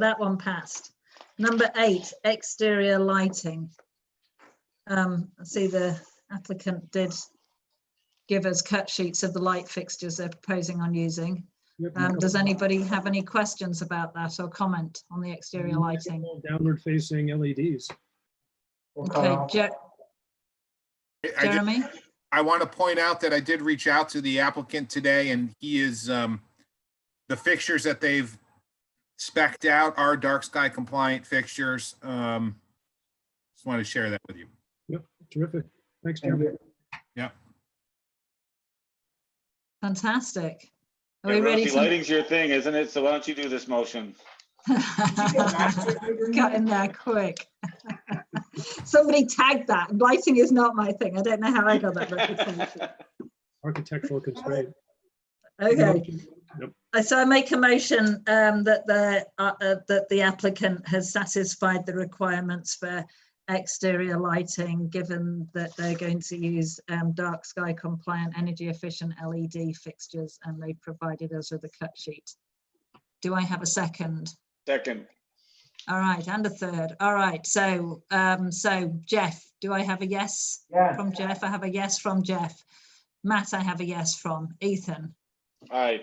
that one passed. Number eight, exterior lighting. Um, I see the applicant did give us cut sheets of the light fixtures they're proposing on using. Yep, Um, yep. does anybody have any questions about that or comment on the exterior Mm-hmm. lighting? Uh, Downward facing LEDs. We'll cut Okay, off. Je- I did- Jeremy? I want to point out that I did reach out to the applicant today and he is, um, the fixtures that they've spec'd out are dark sky compliant fixtures. Um, just want to share that with you. Terrific. Thanks, Thank Jeremy. you. Fantastic. Are we Yeah, ready Rusty, to? lighting's your thing, isn't it? So why don't you do this motion? Got in there quick. Somebody tagged that. Lighting is not my thing. I don't know how I got that reputation. Architectural constraint. Okay, Yep. Uh, so I make a motion um, that the, uh, uh, that the applicant has satisfied the requirements for exterior lighting, given that they're going to use um, dark sky compliant, energy efficient LED fixtures, and they provided us with a cut sheet. Do I have a second? Second, All right, and a third. All right, so, um, so Jeff, do I have a yes Yeah, from Jeff? I have a yes from Jeff. Matt, I have a yes from. Ethan? aye.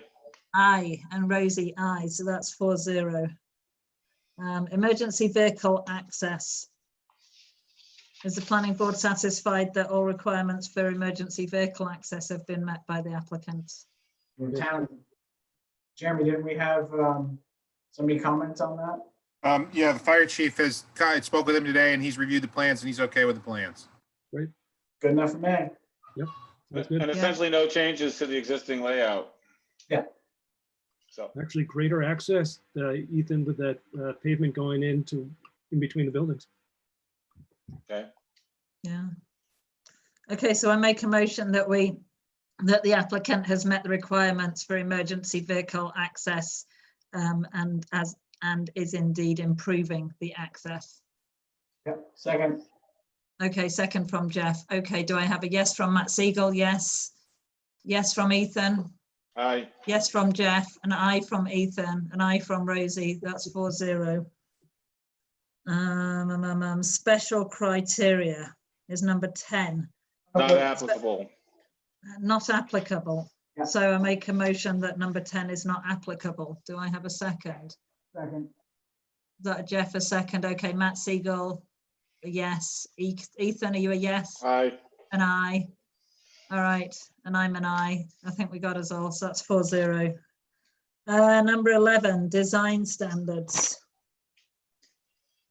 Aye, and Rosie, aye, so that's four zero. Um, emergency vehicle access. Is the planning board satisfied that all requirements for emergency vehicle access have been met by the applicant? from town. Jeremy, didn't we have um, somebody comment on that? Um, yeah, the fire chief has, I spoke with him today and he's reviewed the plans and he's okay with the plans. Good enough for me. That's And good. essentially no changes to the existing layout. Yeah. So, Actually, greater access, uh, Ethan, with that uh, pavement going into, in between the buildings. okay, Yeah. Okay, so I make a motion that we, that the applicant has met the requirements for emergency vehicle access um, and as, and is indeed improving the access. Yep, second, Okay, second from Jeff. Okay, do I have a yes from Matt Siegel? Yes. Yes from Ethan? aye. Yes from Jeff, an I from Ethan, an I from Rosie, that's four zero. Um, um, um, um, special criteria is number ten. Not applicable. not applicable. Yeah. So I make a motion that number 10 is not applicable. Do I have a second? Is second, That Jeff a second? Okay, Matt Siegel, a yes. E- Ethan, are you a yes? Aye. An aye. All right, and I'm an aye. I think we got us all, so that's four zero. Uh, number eleven, design standards.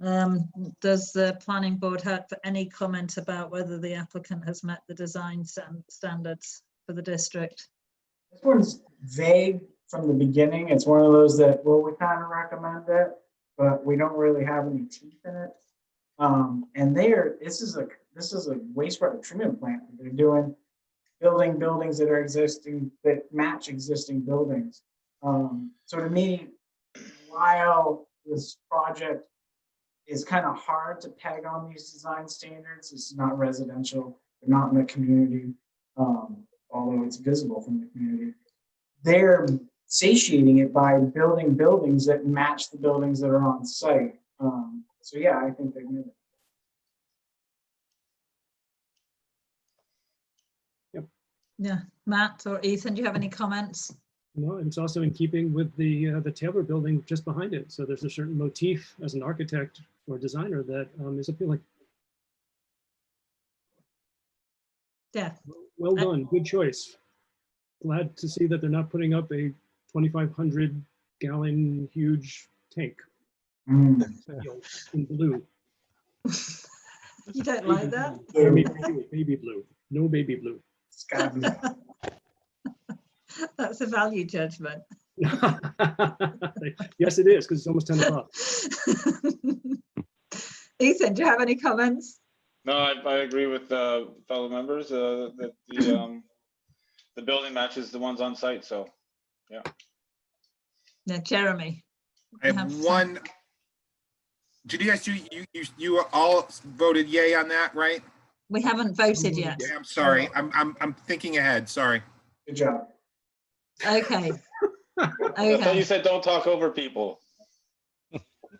Um, does the planning board have any comment about whether the applicant has met the design stan- standards for the district? this one's vague from the beginning. It's one of those that, well, we kind of recommend it, but we don't really have any teeth in it. Um, and they are, this is a, this is a wastewater treatment plant. that They're doing, building buildings that are existing, that match existing buildings. Um, so to me, while this project is kind of hard to peg on these design standards, it's not residential, they're not in the community. Um, although it's visible from the community. They're satiating it by building buildings that match the buildings that are on site. Um, so yeah, I think they're gonna. Yeah, Matt or Ethan, do you have any comments? No, and it's also in keeping with the, uh, the Taylor building just behind it. So there's a certain motif as an architect or designer that um, is appealing. Yeah, Well done, good choice. Glad to see that they're not putting up a 2,500 gallon huge tank Mm. in blue. you don't like that? Baby blue, baby blue. no baby blue. It's gotta be, That's a value judgment. Yes, it is, because it's almost 10 o'clock. Ethan, do you have any comments? No, I, I agree with uh, fellow members, uh, that the, um, the building matches the ones on site, so. Yeah, Jeremy. I have some- one. Did you guys do, you, you, you all voted yay on that, right? We haven't voted yet. Yeah, I'm sorry. I'm, I'm, I'm thinking ahead. Sorry. good job. Okay. I thought you Okay, said don't talk over people.